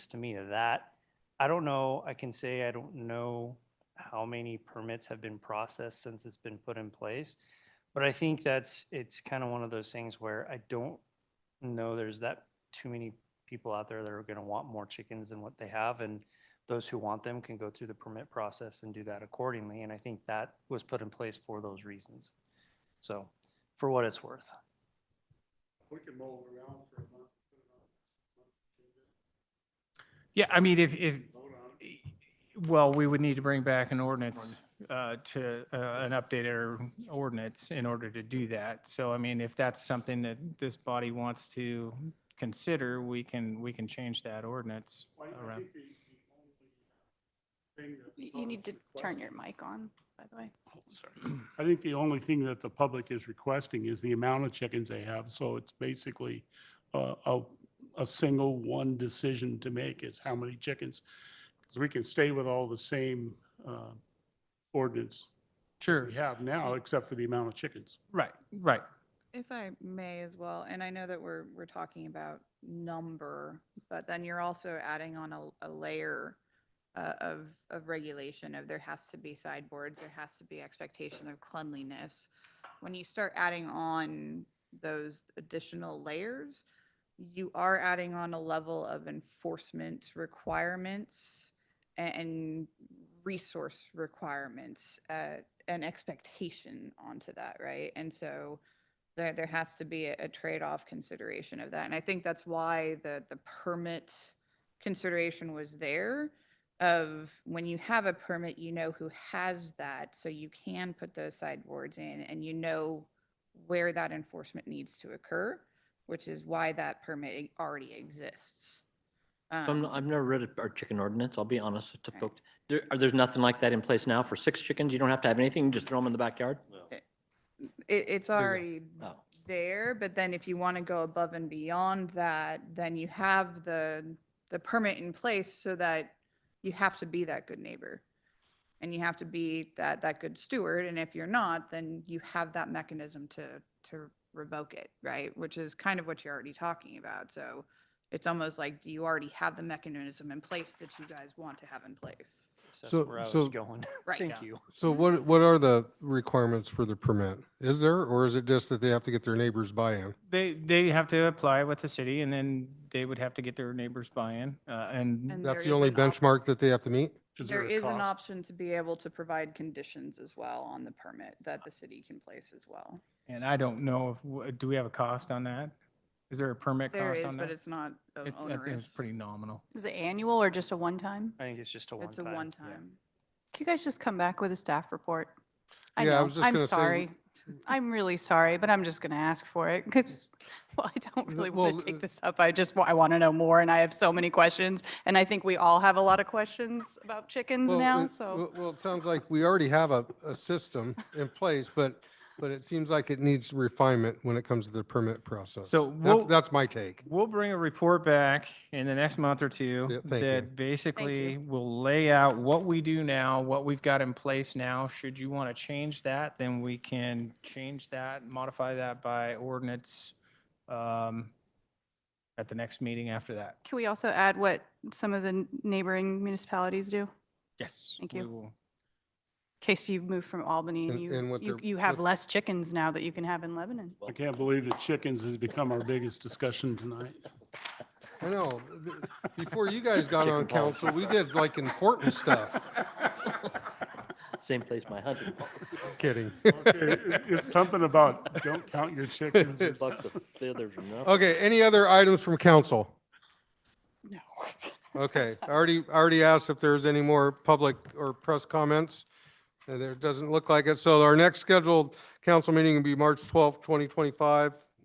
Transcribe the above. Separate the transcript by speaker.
Speaker 1: to me of that. I don't know, I can say I don't know how many permits have been processed since it's been put in place. But I think that's, it's kind of one of those things where I don't know there's that too many people out there that are gonna want more chickens than what they have. And those who want them can go through the permit process and do that accordingly. And I think that was put in place for those reasons. So, for what it's worth.
Speaker 2: We can mull it around for a month. put it on the
Speaker 3: Yeah, I mean, if, if,
Speaker 2: agenda, Vote on it.
Speaker 3: well, we would need to bring back an ordinance uh, to, uh, an updated ordinance in order to do that. So I mean, if that's something that this body wants to consider, we can, we can change that ordinance
Speaker 2: Why- I
Speaker 3: around.
Speaker 2: think the the only thing that the
Speaker 4: You you need to
Speaker 2: public
Speaker 4: turn
Speaker 2: requested-
Speaker 4: your mic on, by the way.
Speaker 2: Oh, I think the only thing that the public is requesting is the amount of chickens they have. So it's basically uh, a, a single one decision to make is how many chickens. Because we can stay with all the same uh, ordinance
Speaker 3: Sure,
Speaker 2: we have now, except for the amount of chickens.
Speaker 3: right, right.
Speaker 5: If I may as well, and I know that we're, we're talking about number, but then you're also adding on a, a layer uh, of, of regulation of there has to be sideboards, there has to be expectation of cleanliness. When you start adding on those additional layers, you are adding on a level of enforcement requirements a- and resource requirements uh, and expectation onto that, right? And so there, there has to be a a trade-off consideration of that. And I think that's why the, the permit consideration was there of when you have a permit, you know who has that, so you can put those sideboards in and you know where that enforcement needs to occur, which is why that permit already exists.
Speaker 6: So I'm,
Speaker 5: Um,
Speaker 6: I've never read our chicken ordinance, I'll be honest to
Speaker 5: Right.
Speaker 6: folks. There, are- there's nothing like that in place now for six chickens? You don't have to have anything, you just throw them in the backyard?
Speaker 5: Um, It, it's
Speaker 3: you go.
Speaker 5: already
Speaker 6: Oh,
Speaker 5: there, but then if you want to go above and beyond that, then you have the, the permit in place so that you have to be that good neighbor. And you have to be that, that good steward, and if you're not, then you have that mechanism to, to revoke it, right? Which is kind of what you're already talking about, so it's almost like, do you already have the mechanism in place that you guys want to have in place?
Speaker 1: That's
Speaker 7: So-
Speaker 1: where I was
Speaker 7: so-
Speaker 1: going.
Speaker 5: Right.
Speaker 1: Thank you.
Speaker 7: So what, what are the requirements for the permit? Is there, or is it just that they have to get their neighbors' buy-in?
Speaker 3: They, they have to apply with the city and then they would have to get their neighbors buy-in uh, and
Speaker 5: And
Speaker 7: That's
Speaker 5: there
Speaker 7: the
Speaker 5: is
Speaker 7: only
Speaker 5: an op-
Speaker 7: benchmark that they have to meet?
Speaker 5: There
Speaker 2: a
Speaker 5: is an
Speaker 2: cost?
Speaker 5: option to be able to provide conditions as well on the permit that the city can place as well.
Speaker 3: And I don't know, if w- do we have a cost on that? Is there a permit
Speaker 5: There
Speaker 3: cost
Speaker 5: is,
Speaker 3: on
Speaker 5: but
Speaker 3: that?
Speaker 5: it's not
Speaker 3: It-
Speaker 5: an
Speaker 3: I think
Speaker 5: onerous.
Speaker 3: It's pretty nominal.
Speaker 4: Is it annual or just a one-time?
Speaker 1: I think it's just a one time.
Speaker 5: It's a one-time.
Speaker 4: Can you guys just come back with a staff report? I
Speaker 7: Yeah, I
Speaker 4: know,
Speaker 7: was just
Speaker 4: I'm
Speaker 7: gonna say-
Speaker 4: sorry. I'm really sorry, but I'm just going to ask for it because, well, I don't
Speaker 7: Th-
Speaker 4: really want
Speaker 7: well,
Speaker 4: to
Speaker 7: uh,
Speaker 4: take this up. I just, wa- I want to know more and I have so many questions. And I think we all have a lot of questions about chickens
Speaker 7: Well,
Speaker 4: now,
Speaker 7: it-
Speaker 4: so.
Speaker 7: Well, well, it sounds like we already have a, a system in place, but, but it seems like it needs refinement when it comes to the permit process.
Speaker 3: So
Speaker 7: That's,
Speaker 3: we'll-
Speaker 7: that's my take.
Speaker 3: We'll bring a report back in the next month or
Speaker 7: Yeah,
Speaker 3: two
Speaker 7: thank you.
Speaker 3: that basically will lay out what we do now, what we've got in place now. Should you want to change that, then we can change that, modify that by ordinance um, at the next meeting after that.
Speaker 4: Can we also add what some of the n- neighboring municipalities do? In
Speaker 3: Yes.
Speaker 4: Thank
Speaker 3: we
Speaker 4: you.
Speaker 3: will.
Speaker 4: case you've moved from Albany and
Speaker 7: And- and
Speaker 4: you,
Speaker 7: what
Speaker 4: you,
Speaker 7: they're-
Speaker 4: you have
Speaker 7: what-
Speaker 4: less chickens now that you can have in Lebanon.
Speaker 2: I can't believe that chickens has become our biggest discussion tonight.
Speaker 7: I know, th- before you guys got on council, we did like important stuff.
Speaker 6: Oh, same place my hunting.
Speaker 7: Kidding.
Speaker 2: Okay, it- It's something about don't count your chickens. or something.
Speaker 6: Buck the feathers enough.
Speaker 7: Okay, any other items from council?
Speaker 4: No.
Speaker 7: Okay, I already, I already asked if there's any more public or press comments. and There doesn't look like it. So our next scheduled council meeting will be March 12th, 2025